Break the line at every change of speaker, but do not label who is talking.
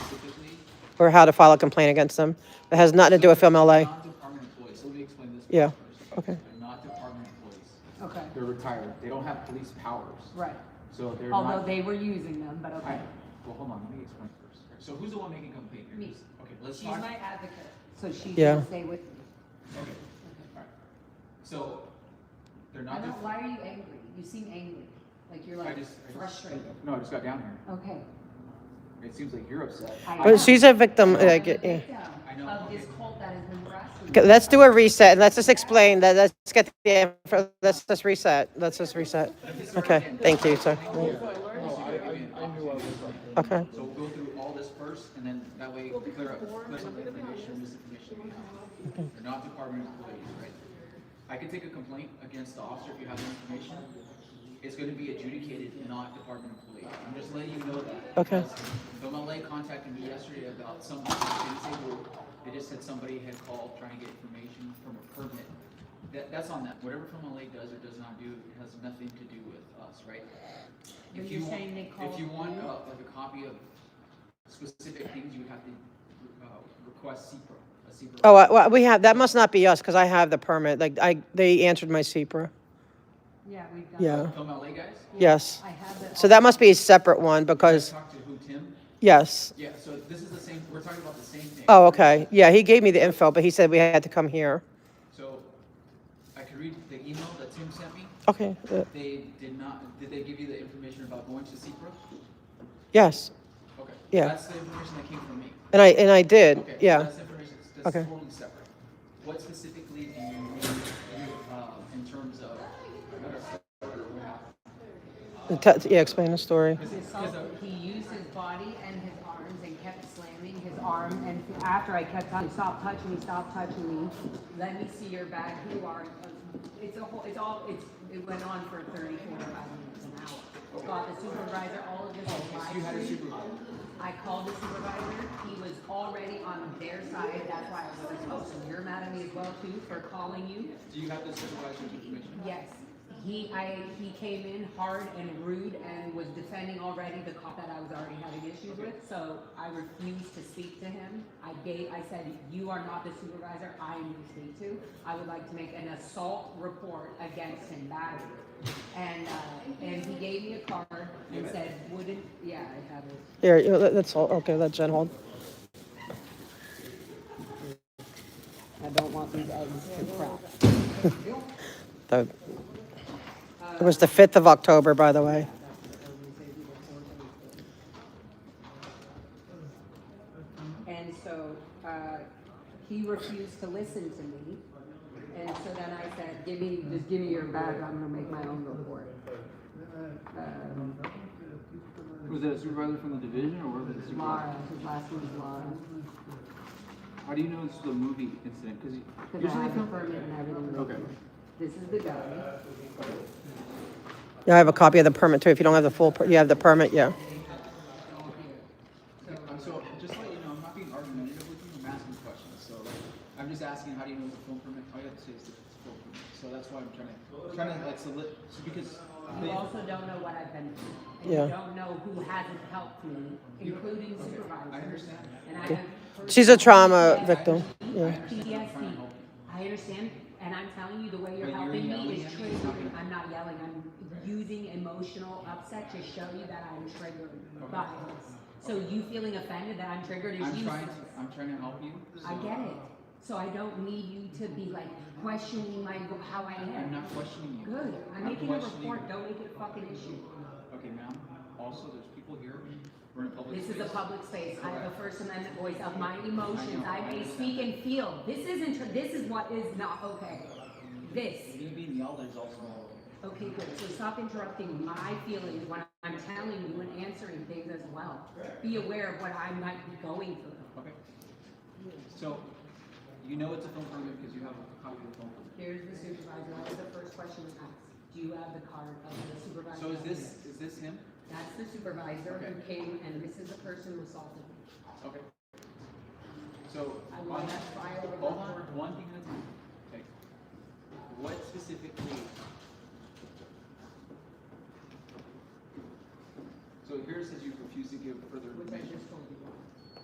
or how to file a complaint against them. It has nothing to do with Film LA.
Not department employees, let me explain this.
Yeah,
first.
okay.
They're not department employees,
Okay,
they're retired, they don't have police powers.
right.
So they're not.
Although they were using them, but
I,
okay.
well, hold on, let me explain first. So who's the one making complaint here?
Me.
Who's- Okay, let's
She's
talk.
my advocate, so she
Yeah.
can stay with me.
Okay, alright. So, they're
I
not.
don't,
def-
why are you angry? You seem angry, like you're
I
like
just- I just-
frustrated.
No, I just got down here.
Okay.
It seems like you're upset.
I
But
am.
she's a victim.
I'm
uh,
the
g- yeah.
victim
I know,
Of this
okay.
cult that has been harassing
Okay,
me.
Let's do a reset and let's just explain that. Let's get the, info- let's just reset. Let's just reset. Okay, thank you, sir.
No, I, I, I knew I was upset.
Okay.
So we'll go through all this first, and then that way clear up, clear up the information, misinformation we have. They're not department employees, right? I can take a complaint against the officer if you have the information. It's gonna be adjudicated, not department employee. I'm just letting you know that.
Okay.
because The LA contacted me yesterday about somebody, they didn't say who, they just said somebody had called trying to get information from a permit. That, that's on them. Whatever Film LA does or does not do has nothing to do with us, right?
But
If
you're
you want,
saying they
if you
called
want,
you?
uh, like a copy of specific things, you would have to, uh, request CPRO, a CPRO.
Oh, I- well, we have, that must not be us because I have the permit. Like I, they answered my CPRA.
Yeah, we've done.
Yeah,
Film LA guys?
yes.
I have it.
So that must be a separate one because,
Talk to who, Tim?
yes.
Yeah, so this is the same, we're talking about the same thing.
Oh, okay. Yeah, he gave me the info, but he said we had to come here.
So, I could read the email that Tim sent me.
Okay, uh,
They did not, did they give you the information about going to CPRO?
yes.
Okay.
Yeah.
That's the information that came from me.
And I, and I did,
Okay, so
yeah.
That's information, that's
Okay.
totally separate. What specifically do you need, uh, in terms of,
T- t- Yeah, explain the story.
He assaulted- He used his body and his arms and kept slamming his arm. And after I kept telling him, stop touching me, stop touching me, let me see your bag, who you are. It's a whole, it's all, it's, it went on for 30, 45 minutes an hour. Got the supervisor, all of this was live.
Oh, you had a
streamed.
supervisor?
I called the supervisor, he was already on their side, that's why I was like, oh, so you're mad at me as well too for calling you?
Do you have the supervisor's information?
Yes, he, I, he came in hard and rude and was defending already the cop that I was already having issues with, so I refused to speak to him. I gave, I said, you are not the supervisor I am to speak to. I would like to make an assault report against him badly. And, uh, and he gave me a card and said, wouldn't, yeah, I have it.
Here, you know, let- let's, hold- okay, let Jen hold.
I don't want these eggs to crack.
The- It was the 5th of October, by the way.
And so, uh, he refused to listen to me. And so then I said, give me, just give me your bag, I'm gonna make my own report. Um,
Was it a supervisor from the division or was it a
Mara, his last name's Mara,
How do you know it's the movie incident? Because
because I have a permit and everything. with me. This is the guy.
Yeah, I have a copy of the permit too. If you don't have the full, per- you have the permit, yeah.
So just let you know, I'm not being argumentative with you. I'm asking questions. So like, I'm just asking, how do you know it's a film permit? Oh, All you have to say is it's a film permit. So that's why I'm trying to trying to like solid so because
You also don't know what I've been through. And
Yeah.
you don't know who hasn't helped me, including supervisors.
I understand.
And I have
She's a trauma victim. Yeah.
PTSD. I understand, and I'm telling you, the way you're
But you're
helping
yelling
me
at
is
me.
triggering. I'm not yelling, I'm using emotional upset to show you that I'm triggered by this. So you feeling offended that I'm triggered is
I'm trying
useless.
to I'm trying to help you. So
I get it. So I don't need you to be like questioning my, how I
I'm
am.
not questioning you.
Good, I'm making a
questioning-
report, don't make it a fucking issue.
Okay, ma'am. Also, there's people here. We're in a public
This is
space.
a public space. I have a First Amendment voice of my emotions. I may speak and feel. This isn't, tr- this is what is not okay. This.
Me being yelled at is also not okay.
Okay, good. So stop interrupting my feelings when I'm telling you and answering things as well. Be aware of what I might be going through.
Okay. So, you know it's a film permit because you have a copy of the film permit.
Here's the supervisor. That was the first question we asked. Do you have the card of the supervisor?
So is this, is this him?
That's the supervisor who came and this is the person who assaulted me.
Okay. So,
I
on
want
that,
that file of
hold
record.
on, one thing at a time. Okay. What specifically? So here it says you refuse to give further
Which I
information.
just told you.